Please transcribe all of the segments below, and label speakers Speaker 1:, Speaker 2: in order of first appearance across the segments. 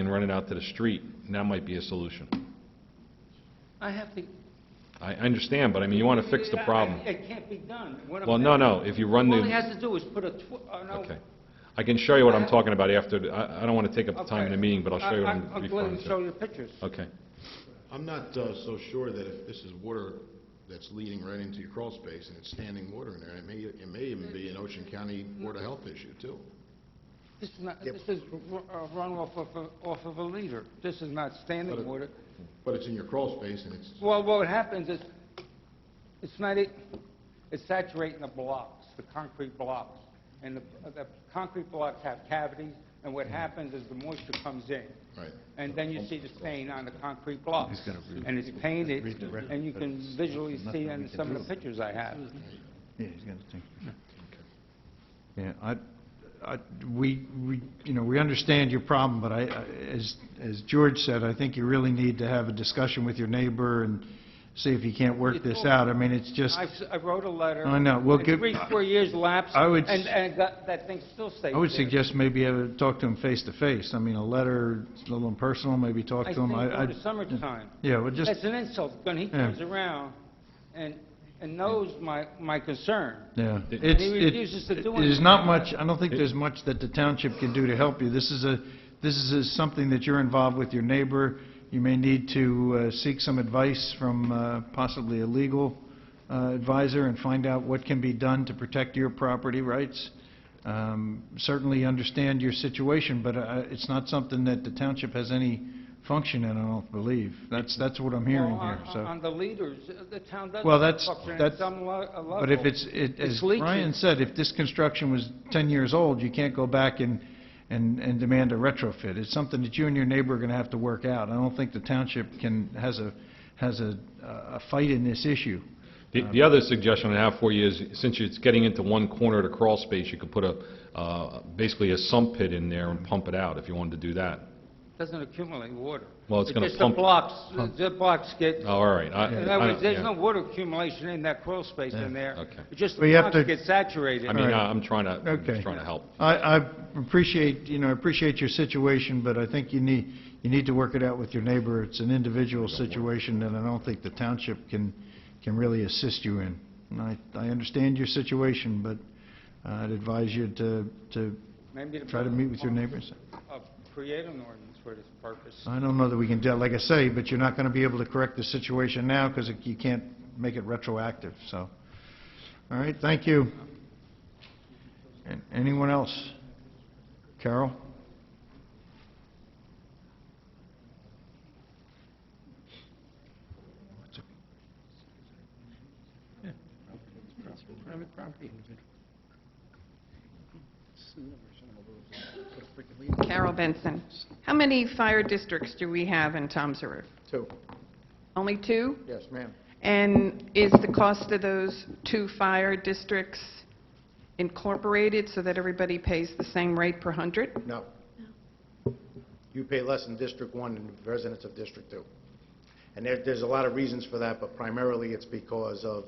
Speaker 1: and run it out to the street, and that might be a solution.
Speaker 2: I have to...
Speaker 1: I I understand, but I mean, you want to fix the problem.
Speaker 2: It can't be done. What I'm
Speaker 1: Well, no,
Speaker 2: saying-
Speaker 1: no, if you run
Speaker 2: All he
Speaker 1: the,
Speaker 2: has to do is put a, tw- uh, no...
Speaker 1: okay. I can show you what I'm talking about after, the- I I don't want to take up the time in the
Speaker 2: Okay.
Speaker 1: meeting, but I'll show you what
Speaker 2: I-
Speaker 1: I'm
Speaker 2: I'm going
Speaker 1: referring
Speaker 2: to show
Speaker 1: to. Uh,
Speaker 2: you pictures.
Speaker 1: Okay.
Speaker 3: I'm not uh, so sure that if this is water that's leading right into your crawl space and it's standing water in there, it may, it may even be an Ocean County Board of Health issue too.
Speaker 2: This is not, this is ru- uh, run off of, a- off of a leader. This is not standing
Speaker 3: But-
Speaker 2: water.
Speaker 3: But it's in your crawl space and it's,
Speaker 2: Well, what happens is, it's not, e- it's saturating the blocks, the concrete blocks. And the, the concrete blocks have cavities, and what happens is the moisture comes in.
Speaker 3: right.
Speaker 2: And then you see the stain on the concrete block. And it's painted, and you can visually see in some of the pictures I have.
Speaker 4: Yeah, he's got a thing. Yeah, I, I, we, we, you know, we understand your problem, but I, I- as, as George said, I think you really need to have a discussion with your neighbor and see if you can't work this out. I mean, it's just,
Speaker 2: I've s- I wrote a letter.
Speaker 4: I know. Well,
Speaker 2: and
Speaker 4: give-
Speaker 2: Three, four years lapsed,
Speaker 4: I would
Speaker 2: and,
Speaker 4: s-
Speaker 2: and that that thing still stays there.
Speaker 4: I would suggest maybe have, a- talk to him face-to-face. I mean, a letter, it's a little impersonal, maybe talk
Speaker 2: I
Speaker 4: to
Speaker 2: think
Speaker 4: him.
Speaker 2: over the summertime,
Speaker 4: Yeah, well, just,
Speaker 2: that's an insult, when he
Speaker 4: Yeah.
Speaker 2: comes around and, and knows my, my concern.
Speaker 4: Yeah,
Speaker 1: It-
Speaker 4: it's,
Speaker 2: And he refuses to
Speaker 4: it-
Speaker 2: do
Speaker 4: there's
Speaker 2: anything
Speaker 4: not
Speaker 2: about
Speaker 4: much, I don't think
Speaker 1: It-
Speaker 4: there's much that the township can do to help you. This is a, this is a- something that you're involved with your neighbor. You may need to uh, seek some advice from uh, possibly a legal uh, advisor and find out what can be done to protect your property rights. Um, Certainly understand your situation, but uh, it's not something that the township has any function in, I don't believe. That's, that's what I'm hearing
Speaker 2: Well, on-
Speaker 4: here, so.
Speaker 2: On the leaders, uh, the town does.
Speaker 4: Well, that's-
Speaker 2: function at
Speaker 4: that's-
Speaker 2: some le- uh, level.
Speaker 4: But if it's, it-
Speaker 2: It's
Speaker 4: as
Speaker 2: leaking.
Speaker 4: Brian said, if this construction was 10 years old, you can't go back and, and, and demand a retrofit. It's something that you and your neighbor are going to have to work out. I don't think the township can, has a, has a, a fight in this issue.
Speaker 1: The the other suggestion I have for you is, since it's getting into one corner of the crawl space, you could put a, uh, basically a sump pit in there and pump it out, if you wanted to do that.
Speaker 2: Doesn't accumulate water.
Speaker 1: Well, it's gonna
Speaker 2: just
Speaker 1: pump-
Speaker 2: the blocks, the blocks get,
Speaker 1: Oh, All right. I-
Speaker 2: in
Speaker 1: I
Speaker 2: other words,
Speaker 1: don't-
Speaker 2: there's
Speaker 1: yeah.
Speaker 2: no water accumulation in that crawl space in there.
Speaker 1: okay.
Speaker 2: It Just
Speaker 4: We
Speaker 2: the
Speaker 4: have
Speaker 2: blocks
Speaker 4: to-
Speaker 2: get saturated.
Speaker 1: I mean,
Speaker 4: All right.
Speaker 1: I- I'm trying to, I'm
Speaker 4: Okay.
Speaker 1: just trying to help.
Speaker 4: I, I appreciate, you know, I appreciate your situation, but I think you need, you need to work it out with your neighbor. It's an individual situation that I don't think the township can, can really assist you in. And I, I understand your situation, but I'd advise you to, to
Speaker 2: Maybe the
Speaker 4: try to meet with your neighbors.
Speaker 2: uh, Create an ordinance for this purpose.
Speaker 4: I don't know that we can, do like I say, but you're not going to be able to correct the situation now because you can't make it retroactive, so. All right, thank you. An- Anyone else? Carol?
Speaker 5: Carol Benson. How many fire districts do we have in Tom's River?
Speaker 6: Two,
Speaker 5: Only two?
Speaker 6: yes, ma'am.
Speaker 5: And is the cost of those two fire districts incorporated so that everybody pays the same rate per hundred?
Speaker 6: No. You pay less in District One than the residents of District Two. And there, there's a lot of reasons for that, but primarily it's because of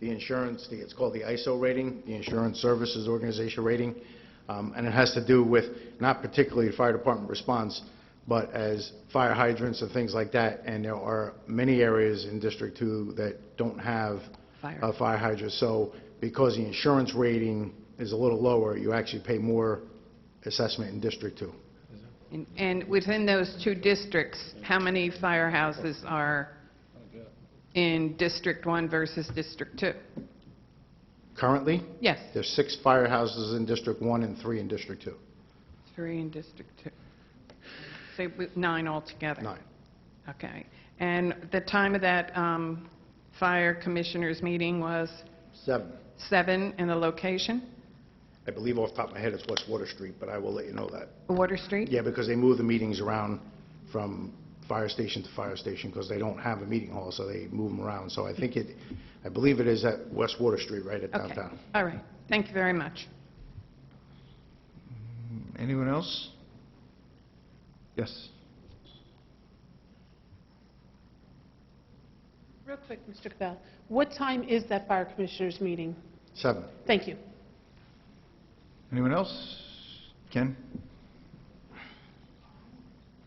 Speaker 6: the insurance, the, it's called the ISO rating, the Insurance Services Organization rating, um, and it has to do with, not particularly fire department response, but as fire hydrants and things like that, and there are many areas in District Two that don't have
Speaker 5: Fire.
Speaker 6: a fire hydrant, so because the insurance rating is a little lower, you actually pay more assessment in District Two.
Speaker 5: And- And within those two districts, how many firehouses are in District One versus District Two?
Speaker 6: Currently,
Speaker 5: Yes,
Speaker 6: there's six firehouses in District One and three in District Two.
Speaker 5: three in District Two. So we- nine altogether?
Speaker 6: Nine.
Speaker 5: Okay. And the time of that um, fire commissioners meeting was
Speaker 6: Seven.
Speaker 5: seven, and the location,
Speaker 6: I believe off the top of my head it's West Water Street, but I will let you know that.
Speaker 5: Water Street?
Speaker 6: Yeah, because they move the meetings around from fire station to fire station because they don't have a meeting hall, so they move them around. So I think it, I believe it is at West Water Street, right at
Speaker 5: Okay,
Speaker 6: downtown.
Speaker 5: all right. Thank you very much.
Speaker 4: Anyone else? Yes.
Speaker 7: Real quick, Mr. Cabell, what time is that fire commissioners meeting?
Speaker 6: Seven.
Speaker 7: Thank you.
Speaker 4: Anyone else? Ken?